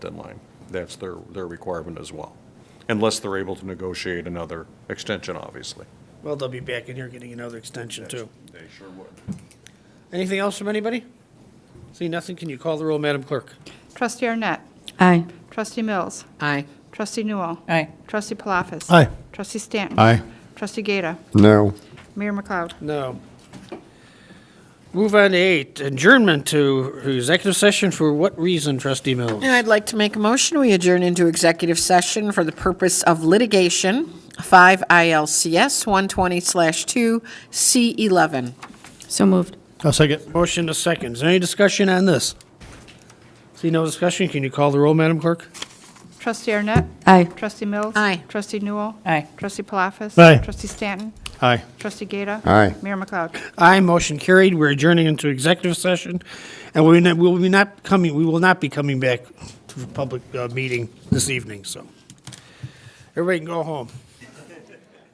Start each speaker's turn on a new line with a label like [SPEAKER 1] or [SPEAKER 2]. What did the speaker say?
[SPEAKER 1] deadline. That's their, their requirement as well, unless they're able to negotiate another extension, obviously.
[SPEAKER 2] Well, they'll be back in here getting another extension too.
[SPEAKER 1] They sure would.
[SPEAKER 2] Anything else from anybody? See nothing, can you call the roll, Madam Clerk?
[SPEAKER 3] Trustee Arnett.
[SPEAKER 4] Aye.
[SPEAKER 3] Trustee Mills.
[SPEAKER 4] Aye.
[SPEAKER 3] Trustee Newell.
[SPEAKER 4] Aye.
[SPEAKER 3] Trustee Palafis.
[SPEAKER 5] Aye.
[SPEAKER 3] Trustee Stanton.
[SPEAKER 5] Aye.
[SPEAKER 3] Trustee Gata.
[SPEAKER 5] No.
[SPEAKER 3] Mayor McLeod.
[SPEAKER 2] No. Move on to eight, adjournment to executive session for what reason, trustee Mills?
[SPEAKER 4] I'd like to make a motion, we adjourn into executive session for the purpose of litigation, 5 ILCS 120/2 C11.
[SPEAKER 6] So moved.
[SPEAKER 5] I'll second.
[SPEAKER 2] Motion to second, is there any discussion on this? See no discussion, can you call the roll, Madam Clerk?
[SPEAKER 3] Trustee Arnett.
[SPEAKER 6] Aye.
[SPEAKER 3] Trustee Mills.
[SPEAKER 4] Aye.
[SPEAKER 3] Trustee Newell.
[SPEAKER 6] Aye.
[SPEAKER 3] Trustee Palafis.
[SPEAKER 5] Aye.
[SPEAKER 3] Trustee Stanton.
[SPEAKER 5] Aye.
[SPEAKER 3] Trustee Gata.
[SPEAKER 5] Aye.
[SPEAKER 3] Mayor McLeod.
[SPEAKER 2] Aye, motion carried, we're adjourning into executive session, and we will we will not coming, we will not be coming back to the public uh, meeting this evening, so. Everybody can go home.